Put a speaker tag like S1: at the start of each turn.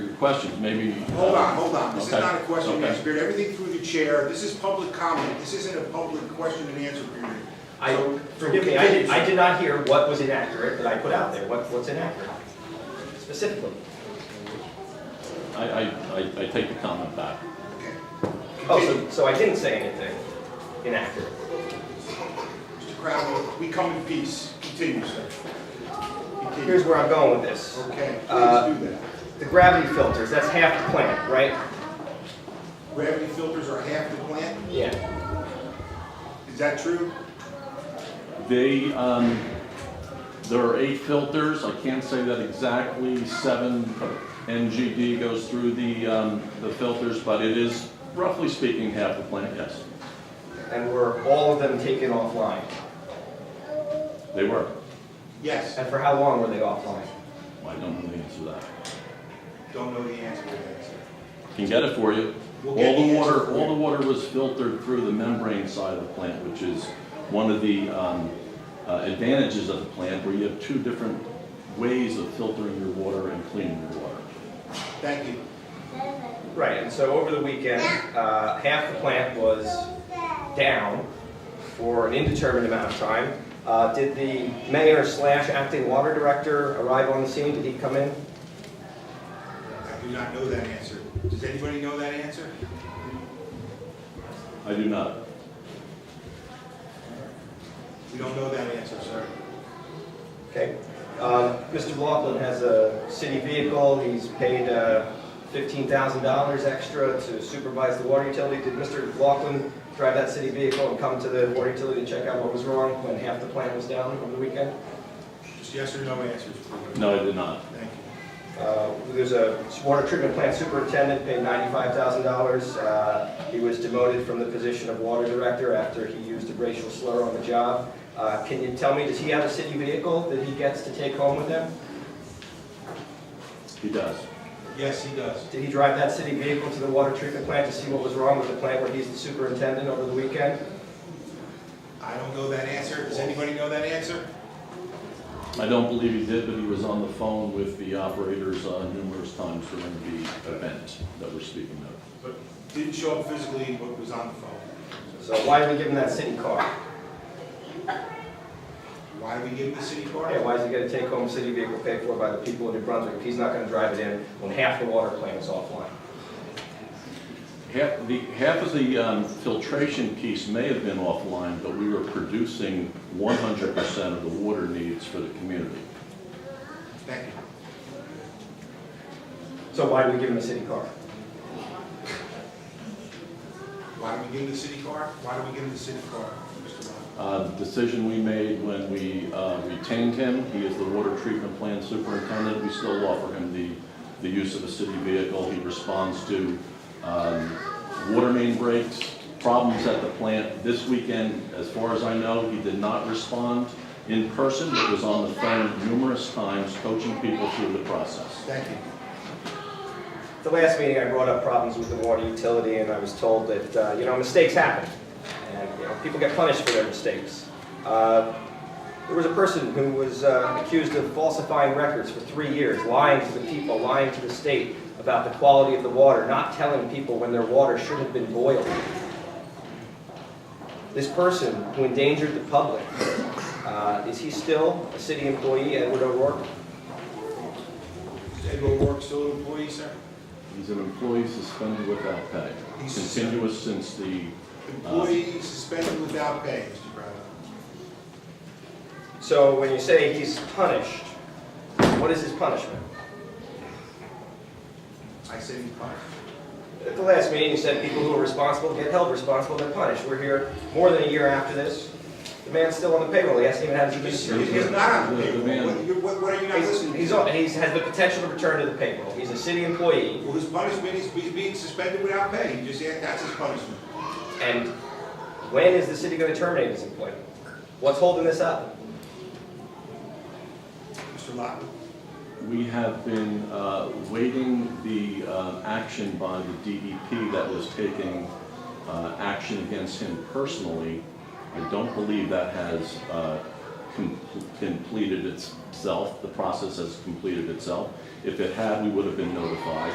S1: questions, maybe.
S2: Hold on, hold on, this is
S1: Okay,
S2: not a question and
S1: okay.
S2: answer period, everything through the chair, this is public comment, this isn't a public question and answer period.
S3: I,
S2: So-
S3: forgive me, I did, I did not hear what was inaccurate that I put out there, what, what's inaccurate specifically.
S1: I, I, I- I take the comment back.
S2: Okay.
S3: Oh, so, so I didn't say anything inaccurate.
S2: Mr. Crowell, we come in peace, continue, sir.
S3: Here's
S2: Continue.
S3: where I'm going with this.
S2: Okay,
S3: Uh,
S2: please do that.
S3: The gravity filters, that's half the plant, right?
S2: Gravity filters are half the plant,
S3: Yeah.
S2: is that true?
S1: They, um, there are eight filters, I can't say that exactly, seven NGD goes through the, um, the filters, but it is roughly speaking half the plant, yes.
S3: And were all of them taken offline?
S1: They were.
S2: Yes,
S3: And for how long were they offline?
S1: I don't know the answer to that.
S2: don't know the answer to that, sir.
S1: Can get it for you.
S2: We'll
S1: All
S2: get the
S1: the
S2: answer
S1: water,
S2: for
S1: all the
S2: you.
S1: water was filtered through the membrane side of the plant, which is one of the um, uh, advantages of the plant, where you have two different ways of filtering your water and cleaning your water.
S2: Thank you.
S3: Right, and so over the weekend, uh, half the plant was down for an indeterminate amount of time. Uh, Did the mayor slash acting water director arrive on the scene? Did he come in?
S2: I do not know that answer. Does anybody know that answer?
S1: I do not.
S2: We don't know that answer, sir.
S3: Okay. Um, Mr. Laughlin has a city vehicle, he's paid uh, $15,000 extra to supervise the water utility. Did Mr. Laughlin drive that city vehicle and come to the water utility to check out what was wrong when half the plant was down over the weekend?
S2: Just yes or no answers. please.
S1: No, I did not.
S2: Thank you.
S3: Uh, There's a water treatment plant superintendent paid $95,000. Uh, He was demoted from the position of water director after he used a racial slur on the job. Uh, Can you tell me, does he have a city vehicle that he gets to take home with him?
S1: He does.
S2: Yes, he does.
S3: Did he drive that city vehicle to the water treatment plant to see what was wrong with the plant where he's the superintendent over the weekend?
S2: I don't know that answer. Does anybody know that answer?
S1: I don't believe he did, but he was on the phone with the operators uh, numerous times during the event that we're speaking of.
S2: But didn't show up physically, but was on the phone.
S3: So why did we give him that city car?
S2: Why do we give him the city car?
S3: Okay, why is he gonna take home a city vehicle paid for by the people of New Brunswick if he's not gonna drive it in when half the water plant is offline?
S1: Half, the, half of the um, filtration piece may have been offline, but we were producing 100% of the water needs for the community.
S2: Thank you.
S3: So why do we give him a city car?
S2: Why do we give him the city car? Why do we give him the city car, Mr. Brown?
S1: Uh, Decision we made when we uh, retained him, he is the water treatment plant superintendent, we still offer him the, the use of a city vehicle. He responds to um, water main breaks, problems at the plant. This weekend, as far as I know, he did not respond in person, but was on the phone numerous times coaching people through the process.
S2: Thank you.
S3: The last meeting, I brought up problems with the water utility, and I was told that, uh, you know, mistakes happen, and, you know, people get punished for their mistakes. Uh, There was a person who was uh, accused of falsifying records for three years, lying to the people, lying to the state about the quality of the water, not telling people when their water should have been boiled. This person who endangered the public, uh, is he still a city employee, Edward O'Rourke?
S2: Is Ed O'Rourke still an employee, sir?
S1: He's an employee suspended without pay,
S2: He's-
S1: continuous since the,
S2: Employee suspended without pay, Mr. Brown.
S3: So when you say he's punished, what is his punishment?
S2: I said he's fired.
S3: At the last meeting, you said people who are responsible get held responsible, they're punished. We're here more than a year after this. The man's still on the payroll, he hasn't even had his
S2: He's
S3: business.
S2: he's not on the
S1: The- the
S2: payroll.
S1: man-
S2: What- you're- What what are you not listening
S3: He's,
S2: to?
S3: he's on, he's has the potential to return to the payroll. He's a city employee,
S2: Well, his punishment is be- being suspended without pay. He just, said that's his punishment.
S3: and when is the city gonna terminate his employment? What's holding this up?
S2: Mr. Lockwood.
S1: we have been uh, waiting the uh, action by the DEP that was taking uh, action against him personally. I don't believe that has uh, com- completed itself, the process has completed itself. If it had, we would have been notified.